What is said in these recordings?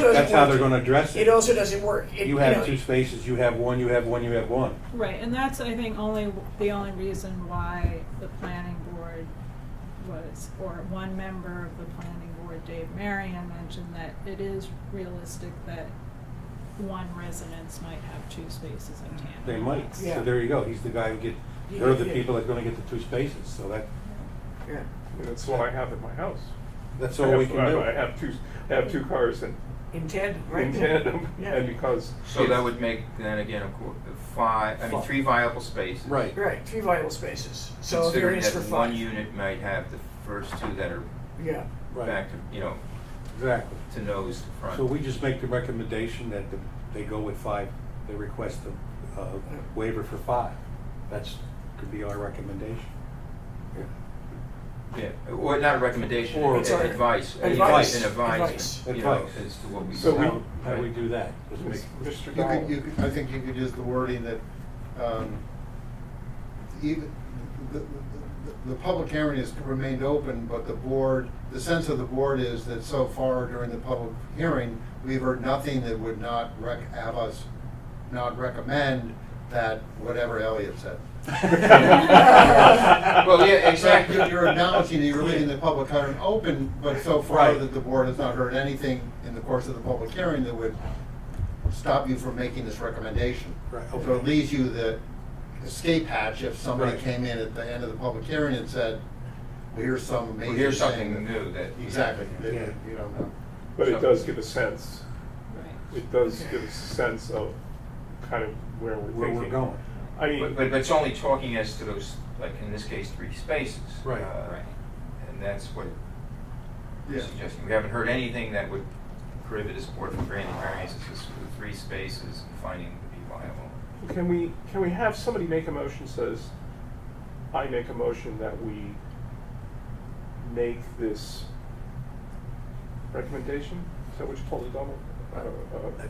doesn't that's how they're work. gonna address It it. also doesn't work. It- You have know, two spaces, you have one, you have one, you have one. Right, and that's, I think, only, the only reason why the planning board was, or one member of the planning board, Dave Marion, mentioned that it is realistic that one residence might have two spaces in tandem. They might, Yeah. so there you go, he's the guy who get, they're the Yeah. people that are gonna get the two spaces, so that, Yeah. That's what I have at my house. that's I all have- we can I- do. I have two, I have two cars in, In tandem, right? in tandem, and because. So that would make then again, of course, five, I mean, Fi- three viable spaces. Right, Right, three vital spaces. So a Considering variance that for one five. unit might have the first two that are Yeah, right, back to, you know, exactly. to nose to front. So we just make the recommendation that the- they go with five, they request a uh, waiver for five. That's, could be our recommendation. Yeah, or not a recommendation, Or- it's Sorry. advice. uh, Advice. An Advice. advisement, you know, Advice. as to what we. So we- How how we do that? Just make- Mr. You could, you Dahl, could, I think you could use the wording that, um, even, the, the, the- the public hearing has remained open, but the board, the sense of the board is that so far during the public hearing, we've heard nothing that would not rec, have us not recommend that whatever Elliot said. Well, yeah, In fact, exactly. you're- You're acknowledging that you're leaving the public hearing open, but so far Right. that the board has not heard anything in the course of the public hearing that would stop you from making this recommendation. Right, So it okay. leaves you the escape hatch if somebody Right. came in at the end of the public hearing and said, well, here's some Well, major here's thing something that-" new that. Exactly, that Yeah. you don't know. But it does give a sense, Right. it does give us a sense of kind of where we're thinking. Where we're going. I But, mean, but but it's only talking as to those, like in this case, three spaces. Right. Uh, And that's what we're Yeah. suggesting. We haven't heard anything that would prohibit this board from granting variances just for the three spaces and finding them to be viable. can we, can we have somebody make a motion says, I make a motion that we make this recommendation? Is that what you call it, Donald? Uh, I don't know.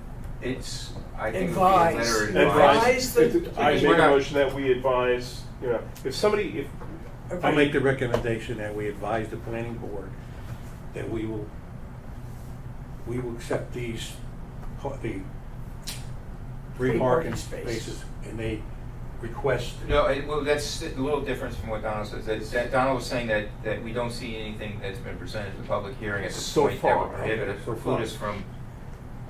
It's, I think it would be a Advise. letter advice. Advise Advise, the- I make We're a not- motion that we advise, you know, if somebody, if. Okay. I'll make the recommendation that we advise the planning board that we will, we will accept these, pa- the three Three parking parking space. spaces and they request. No, it, well, that's a little different from what Donald says. That, that Donald was saying that, that we don't see anything that's been presented to the public hearing at this So point that far, would prohibit okay, us, so preclude far. us from,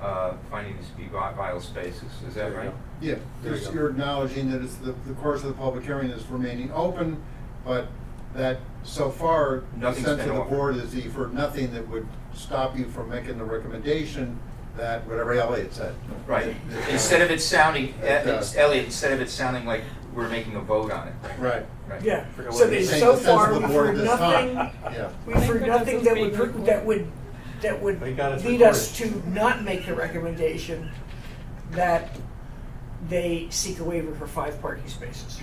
uh, finding this to be vi- vital spaces. Is There that you right? go. Yeah, There you just- go. you're acknowledging that it's, the, the course of the public hearing is remaining open, but that so far, the Nothing's sense of been the offered. board is you've heard nothing that would stop you from making the recommendation that whatever Elliot said. Right. That- that- Instead of it sounding, That, uh, it's- Elliot, instead of it sounding like we're making a vote on it. Right. Right. yeah. Forgot So what they- it is. Saying so the sense far of the we've board heard at this time. nothing. Yeah. We've heard Because nothing it's that being would, pr- recorded. that would, that would They got it lead us to recorded. not make the recommendation that they seek a waiver for five parking spaces.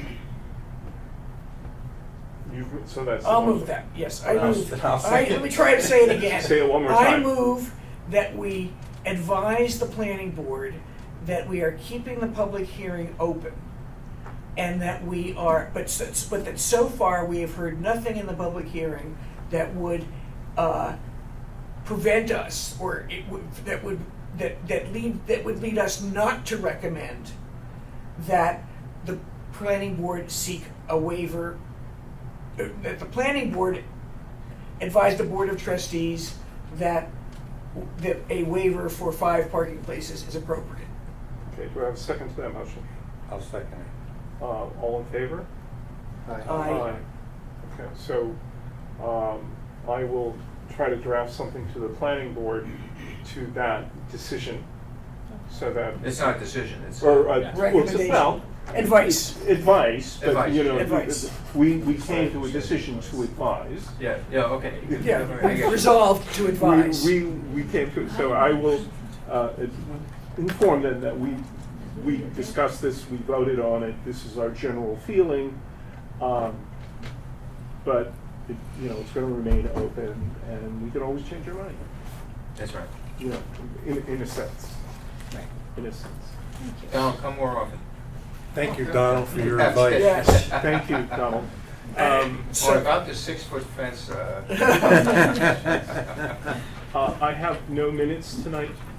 You've, so that's. the I'll motion. move that, yes, I And I'll- move. and I'll All right, let second. me try to say it again. Say it one more I time. move that we advise the planning board that we are keeping the public hearing open. And that we are, but, s- but that so far, we have heard nothing in the public hearing that would, uh, prevent us, or it would, that would, that, that lead, that would lead us not to recommend that the planning board seek a waiver, uh, that the planning board advise the board of trustees that, that a waiver for five parking places is appropriate. Okay, do I have a second to that motion? I'll second it. Uh, all in favor? Aye. Okay, so, um, I will try to draft something to the planning board to that decision, so that, It's not a decision, it's. or, uh, Yeah. well, it's- well, Recommendation. Advice. advice, but, Advice. you know, Advice. we, we came to a decision to advise. Yeah, yeah, okay. Yeah, All right, I get you. resolved to advise. We, we, we came to, so I will, uh, inform them that we, we discussed this, we voted on it, this is our general feeling. Um, but, it, you know, it's gonna remain open and we can always change our mind, That's right. you know, in, in a sense, Right. in a sense. Donald, come more often. Thank you, Donald, for your advice. Yes. Thank you, Donald. Um, Or So, about the six-foot fence, uh. Yes. uh, I have no minutes tonight